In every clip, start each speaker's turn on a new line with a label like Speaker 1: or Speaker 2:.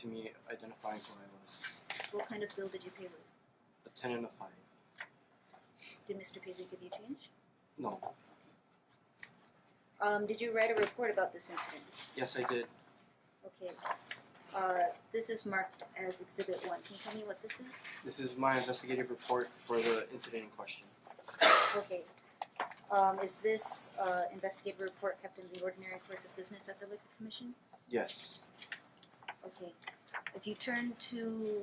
Speaker 1: to me identifying who I was.
Speaker 2: What kind of bill did you pay with?
Speaker 1: A ten and a five.
Speaker 2: Did Mr. Paisley give you change?
Speaker 1: No.
Speaker 2: Um, did you write a report about this incident?
Speaker 1: Yes, I did.
Speaker 2: Okay. Uh, this is marked as Exhibit 1. Can you tell me what this is?
Speaker 1: This is my investigative report for the incident in question.
Speaker 2: Okay. Um, is this uh, investigative report kept in the ordinary course of business at the Liquor Commission?
Speaker 1: Yes.
Speaker 2: Okay. If you turn to.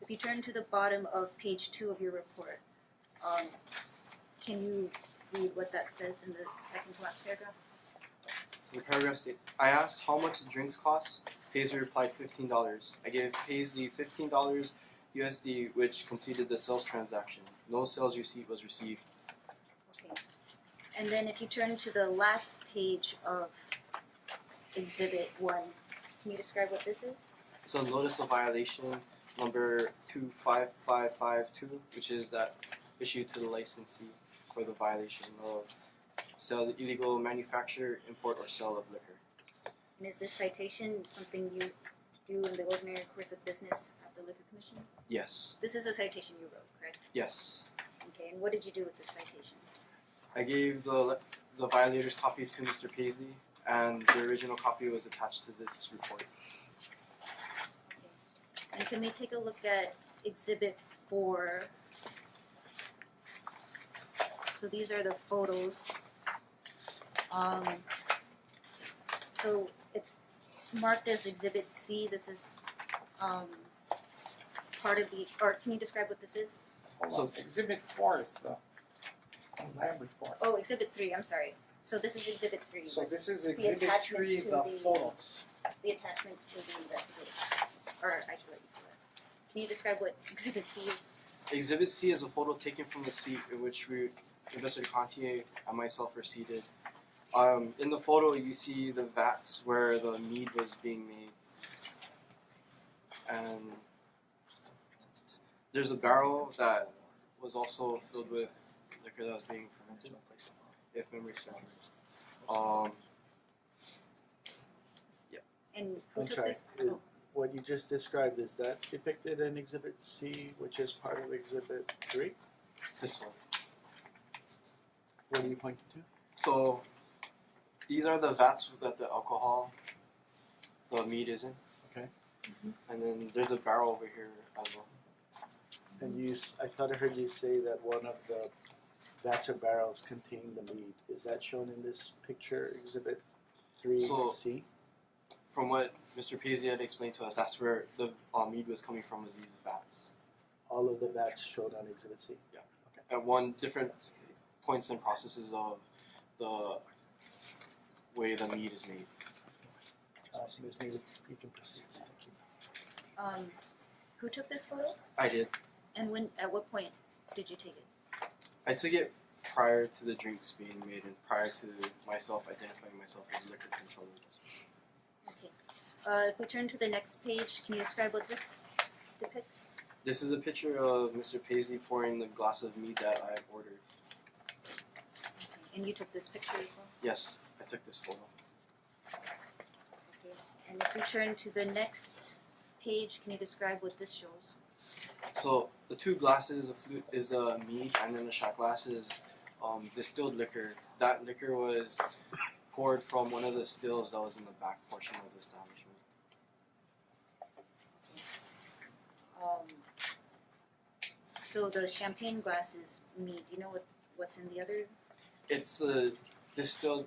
Speaker 2: If you turn to the bottom of page two of your report, um, can you read what that says in the second to last paragraph?
Speaker 1: So the paragraph states, I asked how much the drinks cost. Paisley replied fifteen dollars. I gave Paisley fifteen dollars USD, which completed the sales transaction. No sales receipt was received.
Speaker 2: Okay. And then if you turn to the last page of exhibit one, can you describe what this is?
Speaker 1: It's a notice of violation number two five five five two, which is that issued to the licensee for the violation of sell illegal manufacture, import, or sale of liquor.
Speaker 2: And is this citation something you do in the ordinary course of business at the liquor commission?
Speaker 1: Yes.
Speaker 2: This is a citation you wrote, correct?
Speaker 1: Yes.
Speaker 2: Okay, and what did you do with this citation?
Speaker 1: I gave the the violator's copy to Mr. Paisley, and the original copy was attached to this report.
Speaker 2: And can we take a look at exhibit four? So these are the photos. Um, so it's marked as exhibit C, this is, um, part of the, or can you describe what this is?
Speaker 3: Hold
Speaker 1: So-
Speaker 3: on, exhibit four is the lab report.
Speaker 2: Oh, exhibit three, I'm sorry, so this is exhibit three,
Speaker 3: So this is exhibit
Speaker 2: attachments
Speaker 3: three,
Speaker 2: to
Speaker 3: the
Speaker 2: the-
Speaker 3: photos.
Speaker 2: the attachments to the investigation, or I should let you do it. Can you describe what exhibit C is?
Speaker 1: Exhibit C is a photo taken from the seat in which we, Investigator Contier and myself were seated. Um, in the photo, you see the vats where the mead was being made, and there's a barrel that was also filled with liquor that was being fermented, if memory serves. Um,
Speaker 2: And who
Speaker 4: I'm
Speaker 2: took
Speaker 4: sorry,
Speaker 2: this?
Speaker 4: it-
Speaker 2: oh,
Speaker 4: What you just described, is that depicted in Exhibit C, which is part of Exhibit Three?
Speaker 1: this one.
Speaker 4: What are you pointing to?
Speaker 1: So these are the vats that the alcohol, the meat is in.
Speaker 4: Okay.
Speaker 1: And then there's a barrel over here as well.
Speaker 4: And you, s- I thought I heard you say that one of the vats or barrels contained the mead. Is that shown in this picture, Exhibit Three
Speaker 1: So-
Speaker 4: C?
Speaker 1: From what Mr. Paisley had explained to us, that's where the uh, mead was coming from was these vats.
Speaker 4: All of the vats shown on Exhibit C?
Speaker 1: At one different points and processes of the way the mead is made.
Speaker 4: Uh, Ms. Neely, you can proceed. Thank you.
Speaker 2: Um, who took this photo?
Speaker 1: I did.
Speaker 2: And when, at what point did you take it?
Speaker 1: I took it prior to the drinks being made and prior to myself identifying myself as a liquor controller.
Speaker 2: Okay. Uh, if we turn to the next page, can you describe what this depicts?
Speaker 1: This is a picture of Mr. Paisley pouring the glass of mead that I ordered.
Speaker 2: And you took this picture as well?
Speaker 1: Yes, I took this photo.
Speaker 2: Okay. And if we turn to the next page, can you describe what this shows?
Speaker 1: So the two glasses, a flute is a mead, and then the shot glass is um, distilled liquor. That liquor was poured from one of the stills that was in the back portion of the establishment.
Speaker 2: Um, so the champagne glass is mead. Do you know what, what's in the other?
Speaker 1: It's a distilled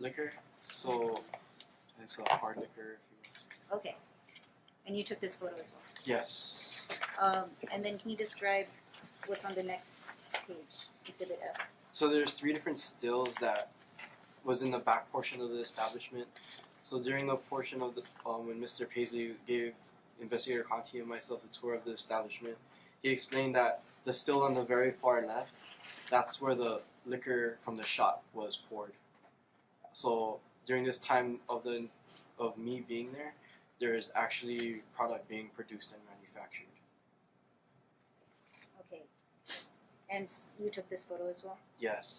Speaker 1: liquor, so it's a hard liquor. If
Speaker 2: Okay. And you took this photo as well?
Speaker 1: you will. Yes.
Speaker 2: Um, and then can you describe what's on the next page, exhibit F?
Speaker 1: So there's three different stills that was in the back portion of the establishment. So during the portion of the um, when Mr. Paisley gave investigator Conti and myself a tour of the establishment, he explained that the still on the very far left, that's where the liquor from the shot was poured. So during this time of the of me being there, there is actually product being produced and manufactured.
Speaker 2: Okay. And s- you took this photo as well?
Speaker 1: Yes.